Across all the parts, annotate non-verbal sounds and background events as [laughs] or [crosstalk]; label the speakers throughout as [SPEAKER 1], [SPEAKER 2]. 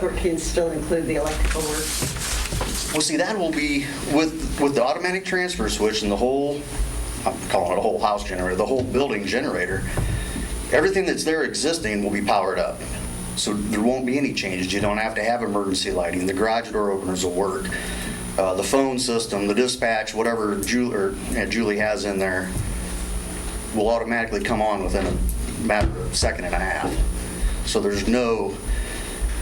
[SPEAKER 1] separate can still include the electrical work.
[SPEAKER 2] Well, see, that will be with, with the automatic transfer switch and the whole, I'm calling it a whole house generator, the whole building generator, everything that's there existing will be powered up. So there won't be any changes. You don't have to have emergency lighting. The garage door openers will work. Uh, The phone system, the dispatch, whatever Julie, or yeah, Julie has in there will automatically come on within a matter of second and a half. So there's no,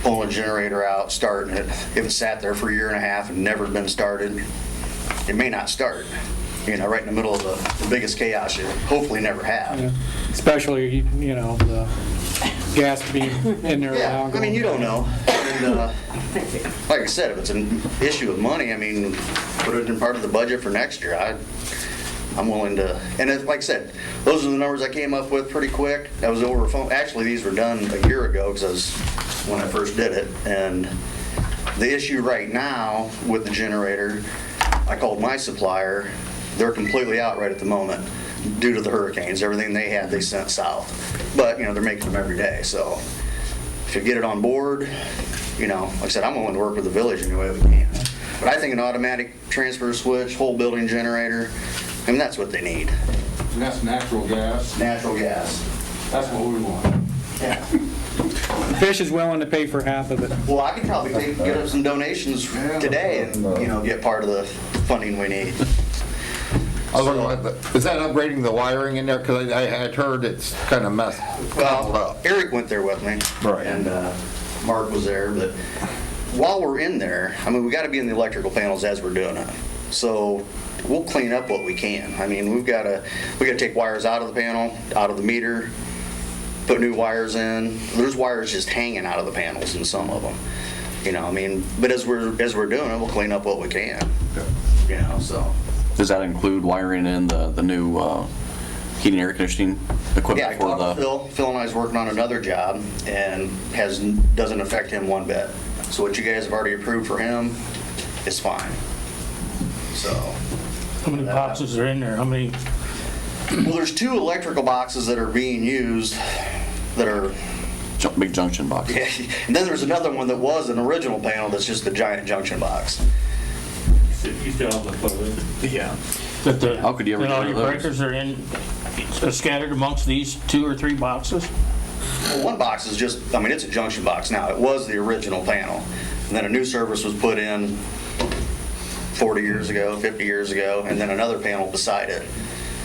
[SPEAKER 2] pulling a generator out, starting it. If it sat there for a year and a half and never been started, it may not start, you know, right in the middle of the the biggest chaos you hopefully never have.
[SPEAKER 3] Especially, you know, the gas being in there
[SPEAKER 2] Yeah,
[SPEAKER 3] now.
[SPEAKER 2] I mean, you don't know. And, uh, [laughs] Like I said, if it's an issue of money, I mean, put it in part of the budget for next year. I, I'm willing to, and it- like I said, those are the numbers I came up with pretty quick. That was over phone, actually, these were done a year ago because I was, when I first did it. And the issue right now with the generator, I called my supplier. They're completely out right at the moment due to the hurricanes. Everything they had, they sent south. But, you know, they're making them every day, so if you get it on board, you know, like I said, I'm willing to work with the village any way we can. But I think an automatic transfer switch, whole building generator, I mean, that's what they need.
[SPEAKER 4] And that's natural gas,
[SPEAKER 2] Natural gas.
[SPEAKER 4] that's what we want.
[SPEAKER 2] Yeah.
[SPEAKER 3] Fish is willing to pay for half of it.
[SPEAKER 2] Well, I could probably take, get up some donations today and, you know, get part of the funding we need.
[SPEAKER 5] I was wondering, is that upgrading the wiring in there? Because I I had heard it's kind of messed messed
[SPEAKER 2] Well,
[SPEAKER 5] up.
[SPEAKER 2] Eric went there with me.
[SPEAKER 5] Right.
[SPEAKER 2] And uh, Mark was there, but while we're in there, I mean, we gotta be in the electrical panels as we're doing it. So we'll clean up what we can. I mean, we've gotta, we gotta take wires out of the panel, out of the meter, put new wires in. There's wires just hanging out of the panels in some of them. You know, I mean, but as we're, as we're doing it, we'll clean up what we can. You know, so.
[SPEAKER 6] Does that include wiring in the, the new uh, heating, air conditioning
[SPEAKER 2] Yeah, I
[SPEAKER 6] equipment for
[SPEAKER 2] talked to
[SPEAKER 6] the?
[SPEAKER 2] Phil. Phil and I is working on another job and has, doesn't affect him one bit. So what you guys have already approved for him is fine. So,
[SPEAKER 7] How many boxes are in there? How many?
[SPEAKER 2] well, there's two electrical boxes that are being used that are, [laughs]
[SPEAKER 6] ju- Big junction box?
[SPEAKER 2] and then there's another one that was an original panel that's just a giant junction box.
[SPEAKER 6] Yeah.
[SPEAKER 7] That the,
[SPEAKER 6] How could you ever
[SPEAKER 7] that all
[SPEAKER 6] get rid of
[SPEAKER 7] your
[SPEAKER 6] those?
[SPEAKER 7] breakers are in, are scattered amongst these two or three boxes?
[SPEAKER 2] Well, One box is just, I mean, it's a junction box now. It was the original panel. And then a new service was put in 40 years ago, 50 years ago, and then another panel beside it.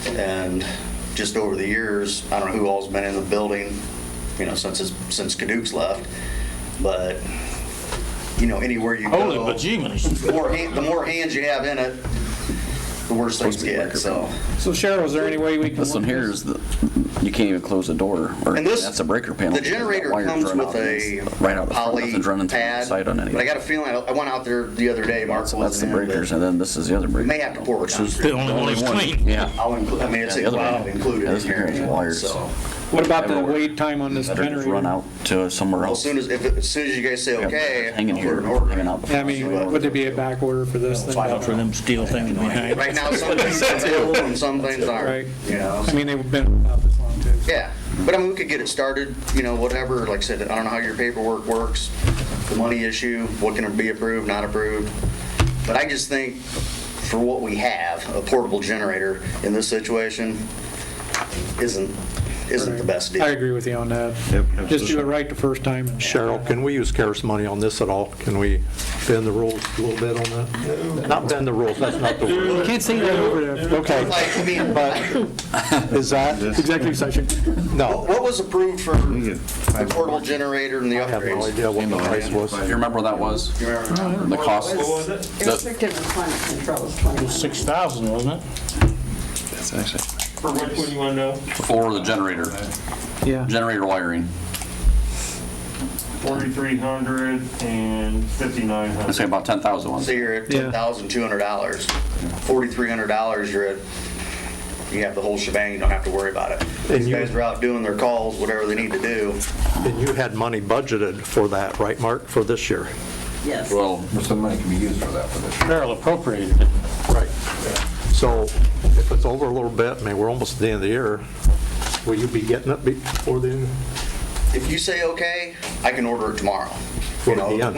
[SPEAKER 2] And just over the years, I don't know who all's been in the building, you know, since, it's- since Caduceus left, but, you know, anywhere you go.
[SPEAKER 7] Holy bejeebers.
[SPEAKER 2] The more, han- the more hands you have in it, the worse things get, so.
[SPEAKER 3] So Cheryl, is there any way we can?
[SPEAKER 6] This one
[SPEAKER 3] work
[SPEAKER 6] here is, the you can't even close the door, or
[SPEAKER 2] And this-
[SPEAKER 6] that's a breaker panel.
[SPEAKER 2] The generator
[SPEAKER 6] Wires
[SPEAKER 2] comes
[SPEAKER 6] run out
[SPEAKER 2] with a
[SPEAKER 6] against- Right out the front,
[SPEAKER 2] poly
[SPEAKER 6] nothing's running through the
[SPEAKER 2] pad.
[SPEAKER 6] side on any.
[SPEAKER 2] But I got a feeling, I I went out there the other day, Mark
[SPEAKER 6] So that's the
[SPEAKER 2] wasn't in, but
[SPEAKER 6] breakers, and then this is the other breaker.
[SPEAKER 2] May have to pour it
[SPEAKER 6] which is
[SPEAKER 2] down.
[SPEAKER 7] The only one that's
[SPEAKER 6] one.
[SPEAKER 7] clean.
[SPEAKER 6] Yeah.
[SPEAKER 2] I'll include, I mean, it's
[SPEAKER 6] Yeah, the other
[SPEAKER 2] wow,
[SPEAKER 6] one.
[SPEAKER 2] included
[SPEAKER 6] Yeah,
[SPEAKER 2] in
[SPEAKER 6] this one here
[SPEAKER 2] here.
[SPEAKER 6] is wires.
[SPEAKER 2] So,
[SPEAKER 3] with- What about the
[SPEAKER 6] everywhere.
[SPEAKER 3] wait time on this
[SPEAKER 6] Better just Run
[SPEAKER 3] generator?
[SPEAKER 6] out to somewhere
[SPEAKER 2] as
[SPEAKER 6] else.
[SPEAKER 2] soon as, if, as soon as you guys say
[SPEAKER 6] Oh. Yeah,
[SPEAKER 2] okay.
[SPEAKER 6] Hanging
[SPEAKER 2] I'll put
[SPEAKER 6] here,
[SPEAKER 2] an order in.
[SPEAKER 6] hanging out. the
[SPEAKER 3] I
[SPEAKER 6] front.
[SPEAKER 3] mean, would there be a back order for this thing?
[SPEAKER 7] Out for them steel things behind.
[SPEAKER 2] Right now,
[SPEAKER 6] [laughs]
[SPEAKER 2] some things are available and some things
[SPEAKER 3] Right.
[SPEAKER 2] aren't, you know,
[SPEAKER 3] I mean, they've been out this long too.
[SPEAKER 2] yeah. But I mean, we could get it started, you know, whatever, like I said, I don't know how your paperwork works, the money issue, what can be approved, not approved. But I just think for what we have, a portable generator in this situation isn't, isn't the best deal.
[SPEAKER 3] I agree with you on that. Just do it right the first time. and-
[SPEAKER 8] Cheryl, can we use CARES money on this at all? Can we bend the rules a little bit on that? Not bend the rules, that's not the word.
[SPEAKER 3] Can't say that over the.
[SPEAKER 8] Okay,
[SPEAKER 2] Like, I mean,
[SPEAKER 8] but is that? Executive session. No,
[SPEAKER 2] What was approved for the portable generator and the
[SPEAKER 8] I have no
[SPEAKER 2] upgrades?
[SPEAKER 8] idea what the price was.
[SPEAKER 6] You remember what that was?
[SPEAKER 2] You remember?
[SPEAKER 6] The cost? The-
[SPEAKER 1] Restrictive climate control is 21.
[SPEAKER 7] Six thousand, wasn't it?
[SPEAKER 9] For which one you want to know?
[SPEAKER 6] For the generator,
[SPEAKER 3] Yeah.
[SPEAKER 6] generator wiring.
[SPEAKER 9] Forty-three hundred and fifty-nine
[SPEAKER 6] I'd say
[SPEAKER 9] hundred.
[SPEAKER 6] about 10,000 ones.
[SPEAKER 2] So you're at
[SPEAKER 3] Yeah.
[SPEAKER 2] ten thousand two hundred dollars, forty-three hundred dollars, you're at, you have the whole shebang, you don't have to worry about it. These
[SPEAKER 8] you-
[SPEAKER 2] guys are out doing their calls, whatever they need to do.
[SPEAKER 8] And you had money budgeted for that, right, Mark, for this year?
[SPEAKER 1] Yes.
[SPEAKER 6] Well,
[SPEAKER 5] Some money can be used for that for this.
[SPEAKER 7] Carol appropriated it.
[SPEAKER 8] Right. So if it's over a little bit, I mean, we're almost at the end of the year, will you be getting it before the end?
[SPEAKER 2] If you say okay, I can order it tomorrow.
[SPEAKER 8] What would be on it?